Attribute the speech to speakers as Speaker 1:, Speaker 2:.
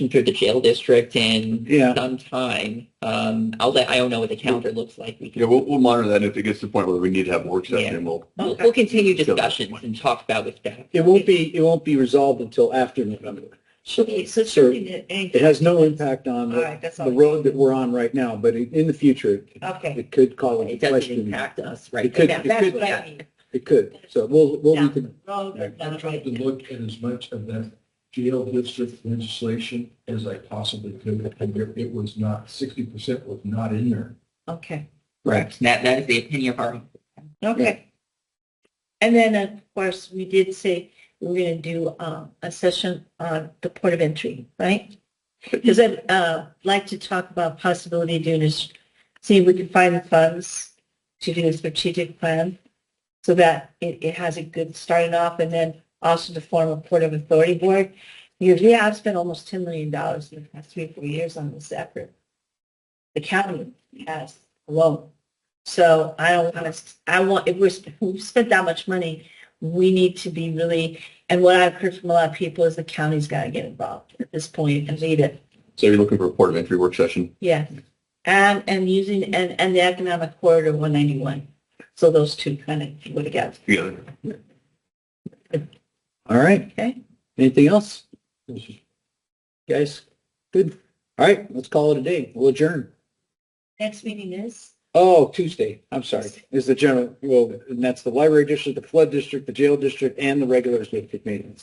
Speaker 1: through the jail district in
Speaker 2: Yeah,
Speaker 1: some time. Um, I'll let, I don't know what the calendar looks like. We
Speaker 3: Yeah,
Speaker 1: can,
Speaker 3: we'll, we'll monitor that, and if it gets to the point where we need to have a work session, we'll,
Speaker 1: we'll, we'll continue discussions and talk about with staff.
Speaker 2: it won't be, it won't be resolved until after November.
Speaker 4: So, so
Speaker 2: Sir,
Speaker 4: something that ain't.
Speaker 2: It has no impact on
Speaker 4: All
Speaker 2: the,
Speaker 4: right, that's all.
Speaker 2: the road that we're on right now, but in in the future, it-
Speaker 4: Okay.
Speaker 2: it could call into
Speaker 1: It doesn't
Speaker 2: question.
Speaker 1: impact us, right?
Speaker 2: It could-
Speaker 4: Now,
Speaker 2: it
Speaker 4: That's
Speaker 2: could-
Speaker 4: what I mean.
Speaker 2: It could, so we'll, we'll,
Speaker 4: Down
Speaker 2: recon-
Speaker 4: the road,
Speaker 2: Yeah,
Speaker 4: not
Speaker 5: I tried
Speaker 4: right
Speaker 5: to
Speaker 4: now.
Speaker 5: look at as much of that jail district legislation as I possibly could, and there, it was not, sixty percent was not in there.
Speaker 4: Okay,
Speaker 1: Correct. That, that is the opinion of our,
Speaker 4: okay. And then, of course, we did say we're gonna do, uh, a session on the port of entry, right? Because I'd, uh, like to talk about possibility of doing is, see if we can find the funds to do a strategic plan so that it, it has a good starting off and then also to form a port of authority board. Because we have spent almost ten million dollars in the past three, four years on this effort. The county has alone. So I don't want to, I want, if we're, sp- we've spent that much money, we need to be really, and what I've heard from a lot of people is the county's got to get involved at this point and lead it.
Speaker 3: so you're looking for a port of entry work session?
Speaker 4: Yeah. And, and using, and, and the economic corridor 191. So those two kind of go together.
Speaker 3: Yeah.
Speaker 2: all right.
Speaker 4: Okay.
Speaker 2: Anything else? Guys, good. All right, let's call it a day. We'll adjourn.
Speaker 4: Next meeting is?
Speaker 2: Oh, Tuesday, I'm sorry, is the general, well, and that's the library district, the flood district, the jail district, and the regular district meetings.